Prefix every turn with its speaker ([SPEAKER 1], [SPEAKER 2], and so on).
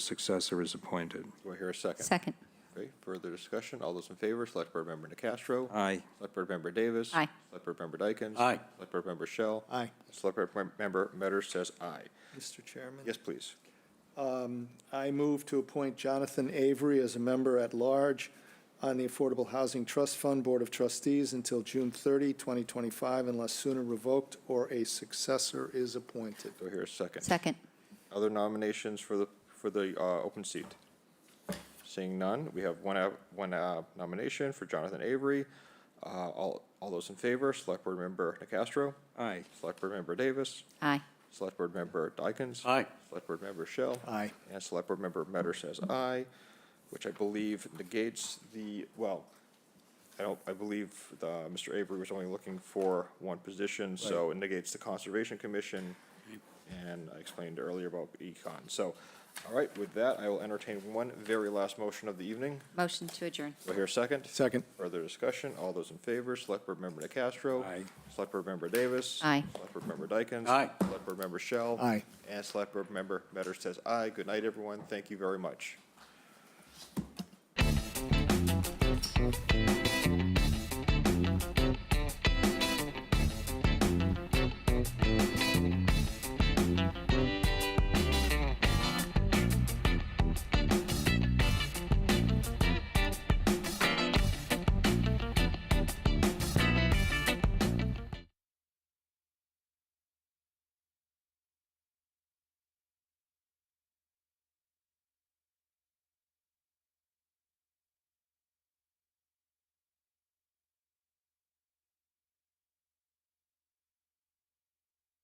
[SPEAKER 1] successor is appointed.
[SPEAKER 2] Do I hear a second?
[SPEAKER 3] Second.
[SPEAKER 2] Okay, further discussion? All those in favor, Select Board Member Castro.
[SPEAKER 1] Aye.
[SPEAKER 2] Select Board Member Davis.
[SPEAKER 3] Aye.
[SPEAKER 2] Select Board Member Dykens.
[SPEAKER 4] Aye.
[SPEAKER 2] Select Board Member Shell.
[SPEAKER 4] Aye.
[SPEAKER 2] Select Board Mem- Member Metter says aye.
[SPEAKER 4] Mr. Chairman? Um,
[SPEAKER 2] Yes, please.
[SPEAKER 4] I move to appoint Jonathan Avery as a member at large on the Affordable Housing Trust Fund Board of Trustees until June 30, 2025, unless sooner revoked or a successor is appointed.
[SPEAKER 2] Do I hear a second?
[SPEAKER 3] Second.
[SPEAKER 2] Other nominations for the, for the uh, open seat? Seeing none, we have one, out- one uh, nomination for Jonathan Avery. Uh, All, all those in favor, Select Board Member Castro.
[SPEAKER 1] Aye.
[SPEAKER 2] Select Board Member Davis.
[SPEAKER 3] Aye.
[SPEAKER 2] Select Board Member Dykens.
[SPEAKER 4] Aye.
[SPEAKER 2] Select Board Member Shell.
[SPEAKER 4] Aye.
[SPEAKER 2] And Select Board Member Metter says aye, which I believe negates the, well, I don't, I believe the, Mr. Avery was only looking for one position, so it negates the Conservation Commission, and I explained earlier about Econ. So, all right, with that, I will entertain one very last motion of the evening.
[SPEAKER 3] Motion to adjourn.
[SPEAKER 2] Do I hear a second?
[SPEAKER 4] Second.
[SPEAKER 2] Further discussion, all those in favor, Select Board Member DeCastro.
[SPEAKER 1] Aye.
[SPEAKER 2] Select Board Member Davis.
[SPEAKER 3] Aye.
[SPEAKER 2] Select Board Member Dykens.
[SPEAKER 4] Aye.
[SPEAKER 2] Select Board Member Shell.
[SPEAKER 4] Aye.
[SPEAKER 2] And Select Board Member Metter says aye. Good night, everyone. Thank you very much.